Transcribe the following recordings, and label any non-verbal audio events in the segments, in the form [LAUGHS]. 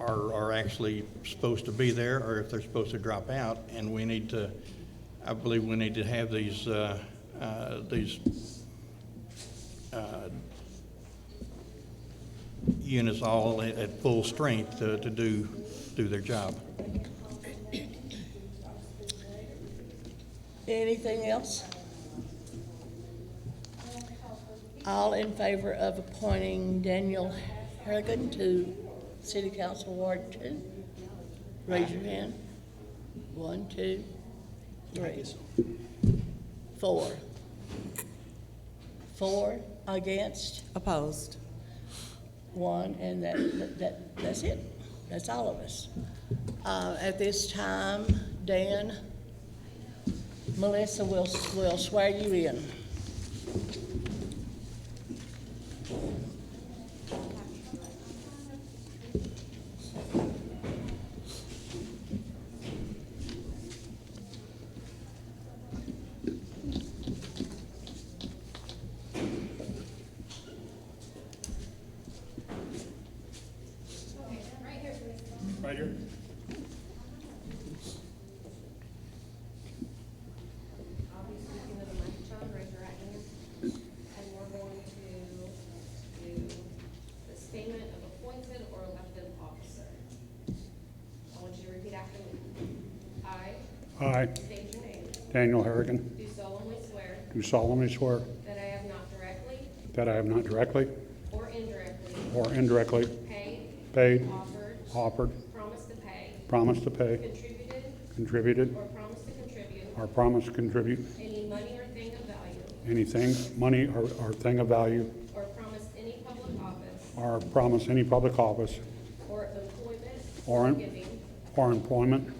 are, are actually supposed to be there, or if they're supposed to drop out, and we need to, I believe we need to have these, uh, uh, these uh, units all at, at full strength to, to do, do their job. Anything else? All in favor of appointing Daniel Harrigan to City Council Ward Two? Raise your hand. One, two, three, four. Four against, Opposed. one, and that, that, that's it. That's all of us. Uh, at this time, Dan, Melissa will, will swear you in. Right here. I'll be speaking to the microphone, raise your right hand. And we're going to do the statement of appointed or elected officer. I want you to repeat after me. I I, state your name. Daniel Harrigan, Do solemnly swear do solemnly swear that I have not directly that I have not directly or indirectly or indirectly paid, paid, offered, offered, promised to pay, promised to pay, contributed, contributed, or promised to contribute or promised to contribute any money or thing of value, anything, money, or, or thing of value, or promised any public office or promise any public office or employment Or- or giving or employment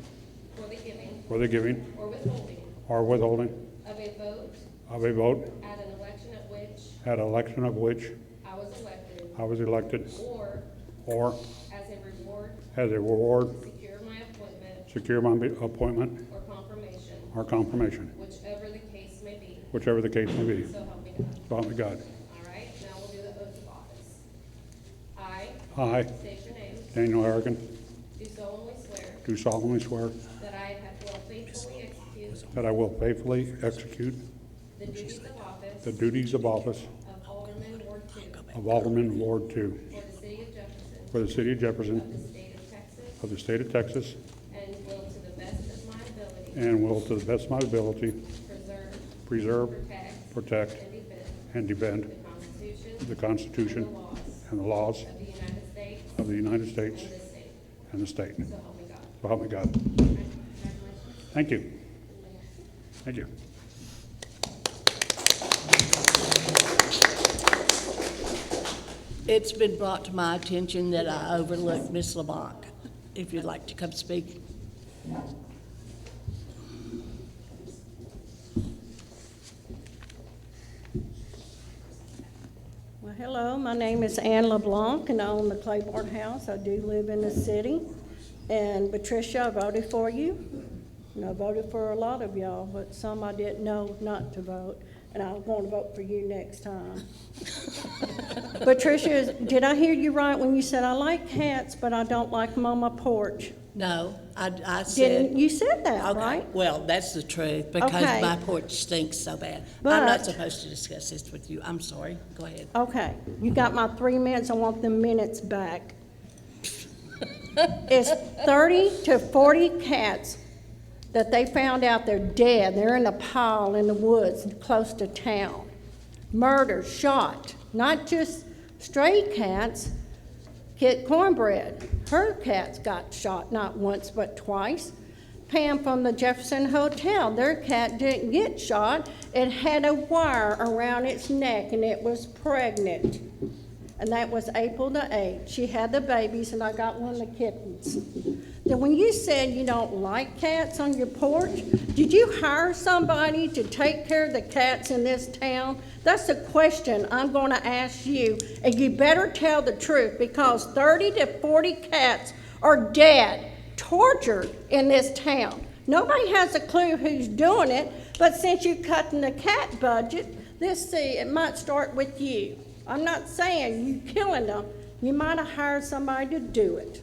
for the giving for the giving or withholding or withholding of a vote of a vote at an election at which at election of which I was elected, I was elected, or or as a reward as a reward, to secure my appointment secure my appointment or confirmation, or confirmation, whichever the case may be, whichever the case may be. so help me God. So help me God. All right, now we'll do the oath of office. I I, state your name, Daniel Harrigan, do solemnly swear Do solemnly swear that I have will faithfully execute that I will faithfully execute the duties of office the duties of office of Alderman Ward Two for of Alderman Ward Two the city of Jefferson for the city of of Jefferson the state of Texas of the state of Texas And will to the best of my ability and will to the best of my ability preserve, preserve, protect, protect, and defend the and defend Constitution the and the Constitution laws and the laws of the United States of the United and States this state. and the state. So help me God. So help me God. Congratulations. Thank you. Thank you. It's been brought to my attention that I overlooked Miss Lamont. If you'd like to come speak. Well, hello, my name is Anne LeBlanc, and I own the Claiborne House. I do live in the city. And Patricia, I voted for you, and I voted for a lot of y'all, but some I didn't know not to vote, and I'm going to vote for you next [LAUGHS] time. Patricia, is- did I hear you right when you said, "I like cats, but I don't like them on my porch"? No, I, I Didn't, said. you said that, Okay, right? Well, that's the truth, because Okay. my porch stinks so bad. I'm not But- supposed to discuss this with you. I'm sorry. Go ahead. Okay, you got my three minutes, I want the minutes back. It's thirty to forty cats that they found out they're dead, they're in a pile in the woods close to town. Murdered, shot, not just stray cats, Kit Cornbread, her cats got shot not once but twice. Pam from the Jefferson Hotel, their cat didn't get shot. It had a wire around its neck and it was pregnant. And that was April the 8th. She had the babies and I got one of the kittens. Then when you said you don't like cats on your porch, did you hire somebody to take care of the cats in this town? That's a question I'm going to ask you, and you better tell the truth because 30 to 40 cats are dead, tortured in this town. Nobody has a clue who's doing it, but since you're cutting the cat budget, let's see, it might start with you. I'm not saying you killing them. You might have hired somebody to do it.